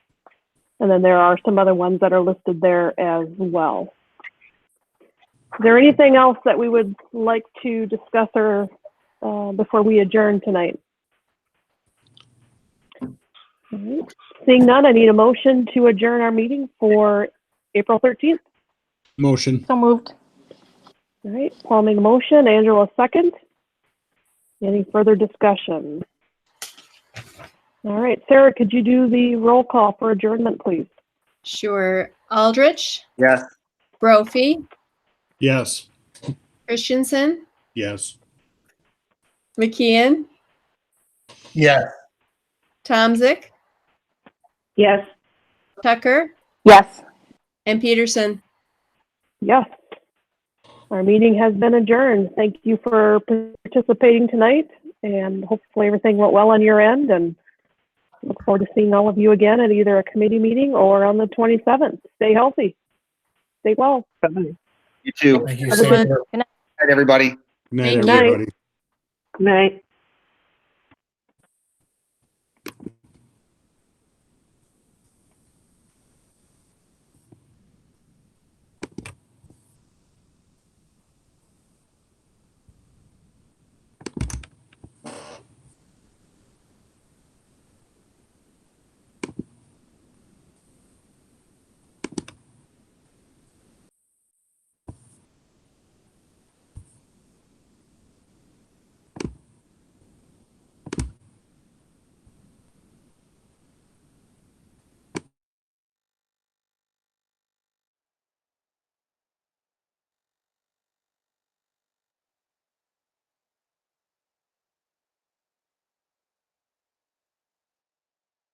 And then there are some other ones that are listed there as well. Is there anything else that we would like to discuss or, uh, before we adjourn tonight? All right. Seeing none, I need a motion to adjourn our meeting for April 13th. Motion. So moved. All right, Paul made a motion, Angela second. Any further discussion? All right, Sarah, could you do the roll call for adjournment, please? Sure. Aldrich, Yes. Brophy, Yes. Christensen, Yes. McKeon, Yes. Tomzik, Yes. Tucker, Yes. and Peterson. Yes. Our meeting has been adjourned. Thank you for participating tonight, and hopefully everything went well on your end, and look forward to seeing all of you again at either a committee meeting or on the 27th. Stay healthy. Stay well. You too. Thank you. Everyone- Sam. Good Hi, everybody. night, Good night. everybody. Night.